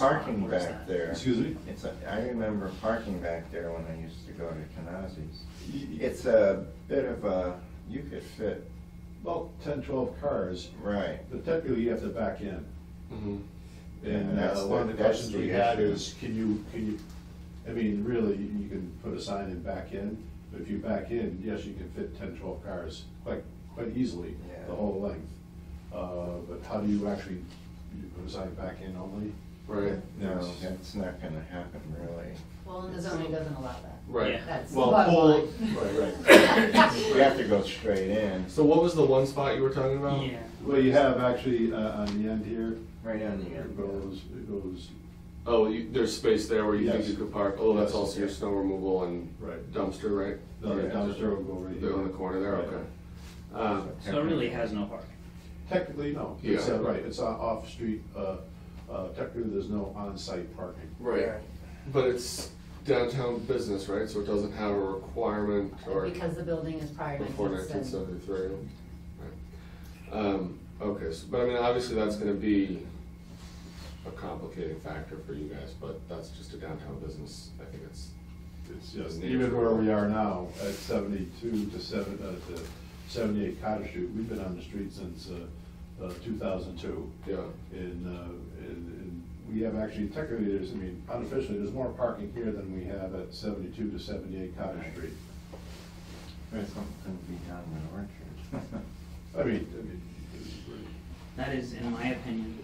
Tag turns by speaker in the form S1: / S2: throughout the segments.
S1: Parking back there.
S2: Excuse me?
S1: It's, a- I remember parking back there when I used to go to Kenazi's.
S2: Y- y-
S1: It's a bit of a, you could fit,
S2: About ten, twelve cars,
S1: right,
S2: but technically you have to back in.
S3: Mhm.
S2: And
S1: That's
S2: uh, one of
S1: the-
S2: the
S1: that's
S2: questions
S1: the
S2: we had
S1: issue.
S2: is, can you, can you, I mean, really, you you can put a sign and back in, but if you back in, yes, you can fit ten, twelve cars quite, quite easily,
S1: Yeah.
S2: the whole length. Uh, But how do you actually, you put a sign back in only?
S3: Right,
S1: no,
S2: Yes.
S1: that's not gonna happen really.
S4: Well, and the zoning doesn't allow that.
S3: right.
S5: Yeah.
S4: That's the
S3: Well,
S4: bottom
S3: pull-
S4: line.
S3: Right, right.
S1: You have to go straight in,
S3: So what was the one spot you were talking about?
S2: Um,
S5: Yeah.
S2: Well, you have actually uh, on the end here,
S1: right on the
S2: it
S1: end.
S2: goes, it goes,
S3: Oh, you, there's space there where you think
S2: Yes.
S3: you could park. Oh, that's
S2: Yes.
S3: also your snow removal and
S2: Right.
S3: Oh, dumpster, right?
S2: the dumpster will go right here.
S3: They're on the corner there,
S2: Right.
S3: okay. Uh,
S5: So it really has no parking.
S2: Technically, no. It's, uh,
S3: Yeah.
S2: right, it's on- off-street, uh, uh, technically, there's no on-site parking.
S3: right, but it's downtown business, right? So it doesn't have a requirement or
S4: Because the building is prior to
S3: before nineteen seventy-three. Um, okay, so, but I mean, obviously that's gonna be a complicating factor for you guys, but that's just a downtown business. I think it's
S2: It's just,
S3: Yeah.
S2: even where we are now, at seventy-two to seven, uh, to seventy-eight Cottage Street, we've been on the street since, uh, uh, two thousand two.
S3: Yeah,
S2: And, uh, and, and we have actually, technically, there's, I mean, unofficially, there's more parking here than we have at seventy-two to seventy-eight Cottage Street.
S1: There's something to be done with Orchard.
S2: I mean, I mean, it's really-
S5: That is, in my opinion,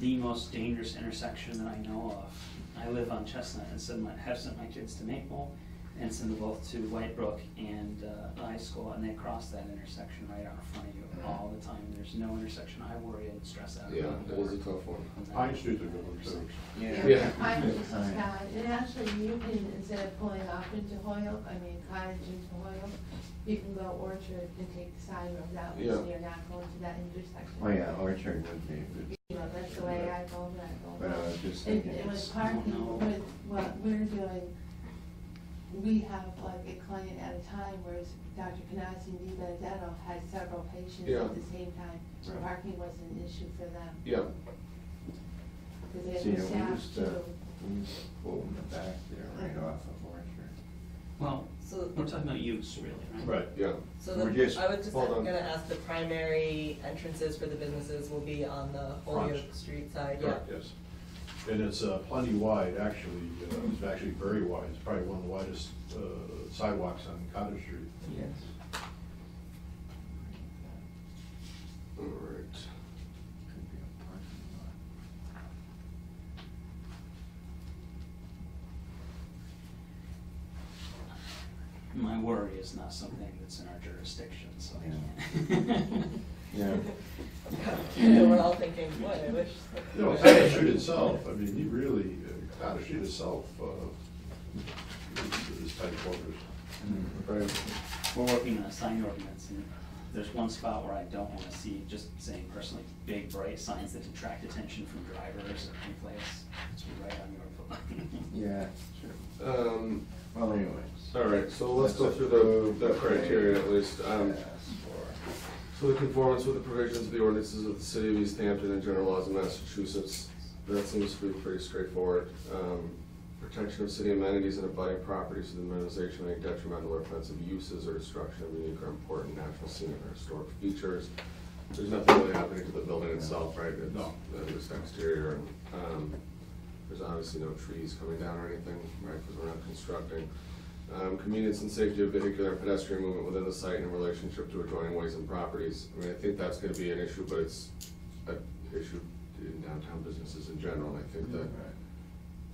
S5: the most dangerous intersection that I know of. I live on Chestnut and send my, have sent my kids to Maple and send them both to White Brook and uh, High School, and they cross that intersection right out in front of you all the time. There's no intersection I worry and stress out
S3: yeah,
S5: about
S3: it
S5: more
S3: is a tough one.
S5: than that
S2: Pine Street's a good one, too.
S3: Yeah.
S6: Cottage
S1: Good
S6: is
S1: time.
S6: Cottage, and actually you can, instead of pulling off into Hoyle, I mean Cottage into Hoyle, you can go Orchard and take the side road out,
S3: Yeah.
S6: so you're not going to that intersection.
S1: Oh, yeah, Orchard would be, a good-
S6: You know, that's the way I go, when I
S1: but
S6: go.
S1: I was just
S6: And,
S1: thinking,
S6: and
S1: it's-
S6: with parking,
S5: no.
S6: with what we're doing, we have like a client at a time, whereas Dr. Canasi and Dee Benedetto had several patients
S3: Yeah.
S6: at the same time. so
S1: Right.
S6: Parking was an issue for them,
S3: Yeah,
S6: because
S1: See,
S6: they
S1: we uh,
S6: were
S1: used
S6: staffed
S1: to-
S6: to
S1: we used to pull in the back there, right off of Orchard.
S5: Well,
S7: So,
S5: we're talking about use really, right?
S2: Right.
S3: yeah,
S7: so
S1: We're
S7: the,
S1: just-
S7: I was just
S3: hold on.
S7: gonna ask, the primary entrances for the businesses will be on the
S2: Front.
S7: Holyoke Street side, yeah?
S2: Correct, yes. And it's uh, plenty wide, actually, uh, it's actually very wide, it's probably one of the widest uh, sidewalks on Cottage Street.
S1: Yes.
S3: all right.
S1: Could be a parking lot.
S5: My worry is not something that's in our jurisdiction, so I
S1: Yeah.
S5: can't.
S1: Yeah.
S7: So we're all thinking, boy, I wish.
S2: You know, Cottage Street itself, I mean, you really, uh, Cottage Street itself uh, is is tight quarters.
S3: Right.
S5: We're working on a sign ordinance, and there's one spot where I don't wanna see, just saying personally, big bright signs that detract attention from drivers or anyplace. It's right on your foot.
S1: Yeah, sure.
S3: Um,
S1: Well, anyways.
S3: all right, so let's go
S1: That's
S3: through the, the
S1: approved.
S3: criteria at least. Um,
S1: Yes, for-
S3: So the conformance with the provisions of the ordinances of the city of East Hampton and general laws of Massachusetts, that seems to be pretty straightforward. Um, Protection of city amenities and abutting properties from the minimization of any detrimental or offensive uses or destruction of unique or important natural scenic or historic features. There's nothing really happening to the building itself, right? It's-
S2: No.
S3: uh, Just exterior, and, um, there's obviously no trees coming down or anything, right, because we're not constructing. Um, convenience and safety of vehicular and pedestrian movement within the site in relationship to adjoining ways and properties. I mean, I think that's gonna be an issue, but it's an issue in downtown businesses in general, and I think that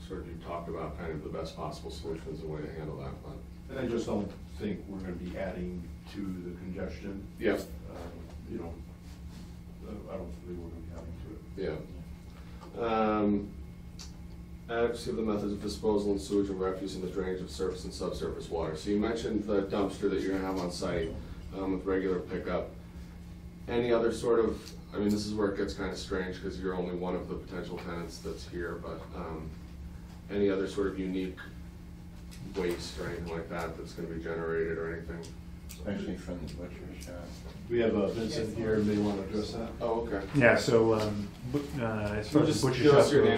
S3: sort of you talked about kind of the best possible solutions and way to handle that, but.
S2: And I just don't think we're gonna be adding to the congestion,
S3: Yeah,
S2: uh, you know, uh, I don't think we're gonna be adding to it.
S3: yeah. Um, Adequacy of the methods of disposal and sewage and refuse and the drainage of surface and subsurface water. So you mentioned the dumpster that you're gonna have on site um, with regular pickup. Any other sort of, I mean, this is where it gets kind of strange because you're only one of the potential tenants that's here, but um, any other sort of unique waste or anything like that that's gonna be generated or anything?
S1: especially from the butcher shop.
S2: We have uh, Vincent here, may want to address that.
S3: Oh, okay.
S8: Yeah, so, um, but, uh, as far
S3: You
S8: as
S3: just
S8: the butcher
S3: give
S8: shop
S3: us your
S8: goes-
S3: name